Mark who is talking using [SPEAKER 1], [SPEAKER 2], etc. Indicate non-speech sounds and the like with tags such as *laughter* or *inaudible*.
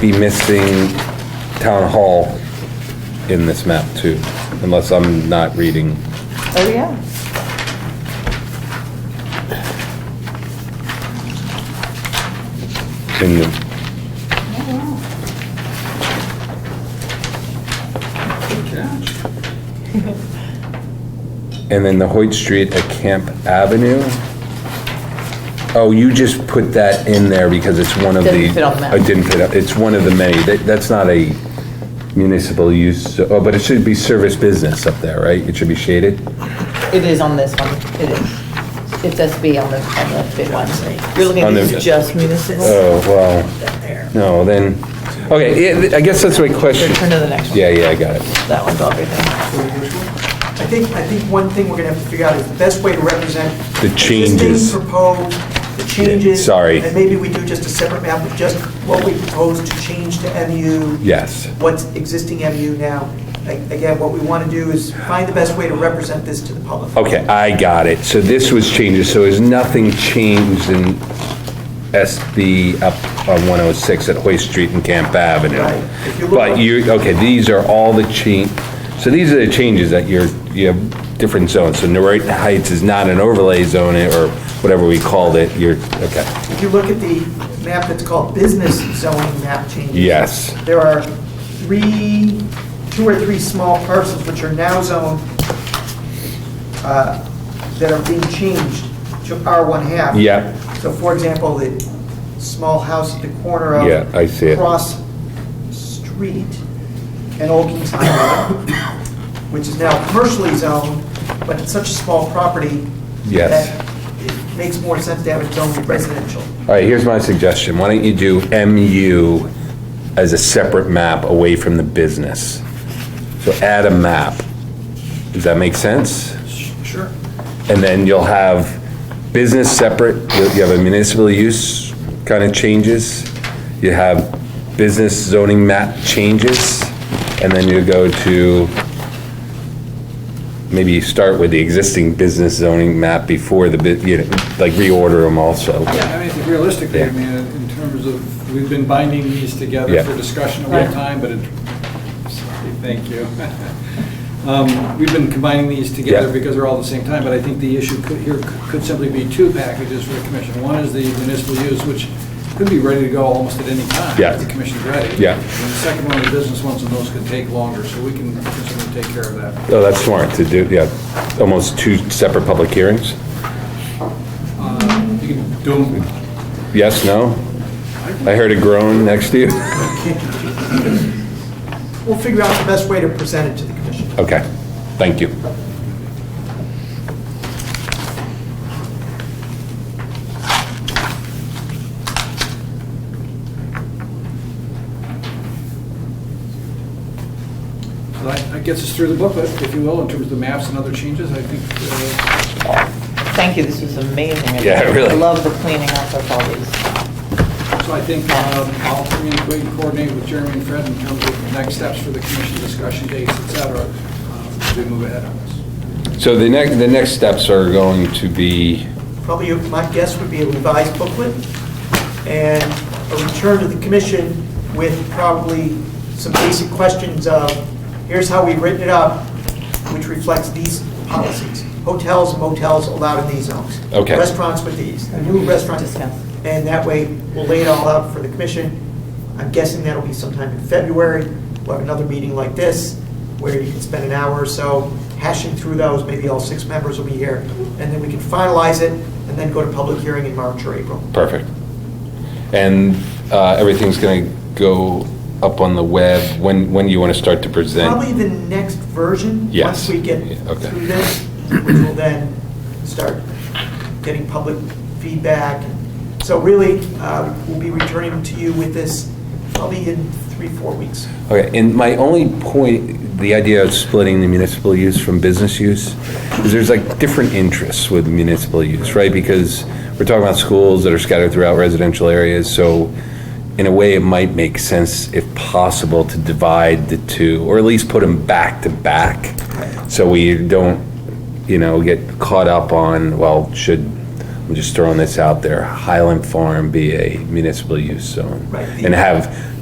[SPEAKER 1] be missing town hall in this map too, unless I'm not reading.
[SPEAKER 2] Oh, yeah.
[SPEAKER 1] Can you- And then the Hoyt Street at Camp Avenue? Oh, you just put that in there because it's one of the.
[SPEAKER 2] Didn't fit on the map.
[SPEAKER 1] It didn't fit up, it's one of the many, that, that's not a municipal use, oh, but it should be service business up there, right? It should be shaded?
[SPEAKER 2] It is on this one, it is. It's SB on the, on the big one. You're looking
[SPEAKER 1] On
[SPEAKER 2] at
[SPEAKER 1] the-
[SPEAKER 2] these just municipal?
[SPEAKER 1] Oh, well, no, then, okay, yeah, I guess that's my question.
[SPEAKER 2] Turn to the next one.
[SPEAKER 1] Yeah, yeah, I got it.
[SPEAKER 2] That one's all everything.
[SPEAKER 3] I think, I think one thing we're gonna have to figure out is the best way to represent.
[SPEAKER 1] The changes.
[SPEAKER 3] Existing, proposed, the changes.
[SPEAKER 1] sorry.
[SPEAKER 3] And maybe we do just a separate map with just what we propose to change to MU.
[SPEAKER 1] Yes.
[SPEAKER 3] What's existing MU now. A- Again, what we wanna do is find the best way to represent this to the public.
[SPEAKER 1] Okay, I got it. So this was changes, so is nothing changed in SB up on 106 at Hoyt Street and Camp Avenue?
[SPEAKER 3] Right. If you look-
[SPEAKER 1] But you, okay, these are all the change, so these are the changes that you're, you have different zones. So Norton Heights is not an overlay zone or whatever we called it, you're, okay.
[SPEAKER 3] If you look at the map that's called business zoning map changes.
[SPEAKER 1] Yes.
[SPEAKER 3] There are three, two or three small parcels which are now zoned, uh, that are being changed to R1 half.
[SPEAKER 1] Yeah.
[SPEAKER 3] So for example, the small house at the corner of.
[SPEAKER 1] Yeah, I see it.
[SPEAKER 3] Cross Street and Old Kings Highway, which is now commercially zoned, but it's such a small property.
[SPEAKER 1] Yes.
[SPEAKER 3] That it makes more sense to have it zoned residential.
[SPEAKER 1] All right, here's my suggestion. Why don't you do MU as a separate map away from the business? So add a map. Does that make sense?
[SPEAKER 3] Sure.
[SPEAKER 1] And then you'll have business separate, you you have a municipal use kind of changes, you have business zoning map changes, and then you go to, maybe you start with the existing business zoning map before the, bu- you know, like reorder them also.
[SPEAKER 4] Yeah, I mean, I think realistically,
[SPEAKER 1] Yeah.
[SPEAKER 4] I mean, in terms of, we've been binding these
[SPEAKER 1] Yeah.
[SPEAKER 4] together for discussion over
[SPEAKER 2] Yeah.
[SPEAKER 4] time, but it, sorry, thank you. *laughs* Um, We've been combining these together
[SPEAKER 1] Yeah.
[SPEAKER 4] because they're all at the same time, but I think the issue could, here could simply be two packages for the commission. One is the municipal use, which could be ready to go almost at any time.
[SPEAKER 1] Yeah.
[SPEAKER 4] If the commission's ready.
[SPEAKER 1] Yeah.
[SPEAKER 4] And the second one, the business ones, and those could take longer, so we can certainly take care of that.
[SPEAKER 1] Oh, that's smart to do, yeah, almost two separate public hearings?
[SPEAKER 4] You can do them
[SPEAKER 1] Yes, no? I heard a groan next to you. *laughs*
[SPEAKER 3] We'll figure out the best way to present it to the commission.
[SPEAKER 1] Okay, thank you.
[SPEAKER 4] So That that gets us through the booklet, if you will, in terms of the maps and other changes. I think uh,
[SPEAKER 2] Thank you, this was amazing.
[SPEAKER 1] Yeah, really.
[SPEAKER 2] I love the cleaning up of all these.
[SPEAKER 4] So I think um, I'll communicate and coordinate with Jeremy and Fred in terms of the next steps for the commission discussion dates, et cetera, um, as we move ahead on this.
[SPEAKER 1] So the next, the next steps are going to be,
[SPEAKER 3] Probably, my guess would be a revised booklet and a return to the commission with probably some basic questions of, here's how we've written it up, which reflects these policies. Hotels, motels allowed in these zones.
[SPEAKER 1] Okay.
[SPEAKER 3] Restaurants with these, a new restaurant.
[SPEAKER 2] Discuss.
[SPEAKER 3] And that way, we'll lay it all out for the commission. I'm guessing that'll be sometime in February. We'll have another meeting like this, where you can spend an hour or so hashing through those, maybe all six members will be here, and then we can finalize it, and then go to public hearing in March or April.
[SPEAKER 1] perfect. And uh, everything's going to go up on the web, when, when do you want to start to present?
[SPEAKER 3] Probably the next version,
[SPEAKER 1] Yes.
[SPEAKER 3] once we get
[SPEAKER 1] Yeah, okay.
[SPEAKER 3] through this, which will then start getting public feedback. So really, uh, we'll be returning to you with this probably in three, four weeks.
[SPEAKER 1] Okay, and my only point, the idea of splitting the municipal use from business use, is there's like different interests with municipal use, right? Because we're talking about schools that are scattered throughout residential areas, so in a way, it might make sense, if possible, to divide the two, or at least put them back to back, so we don't, you know, get caught up on, well, should, I'm just throwing this out there, Highland Farm be a municipal use zone?
[SPEAKER 3] Right.
[SPEAKER 1] And have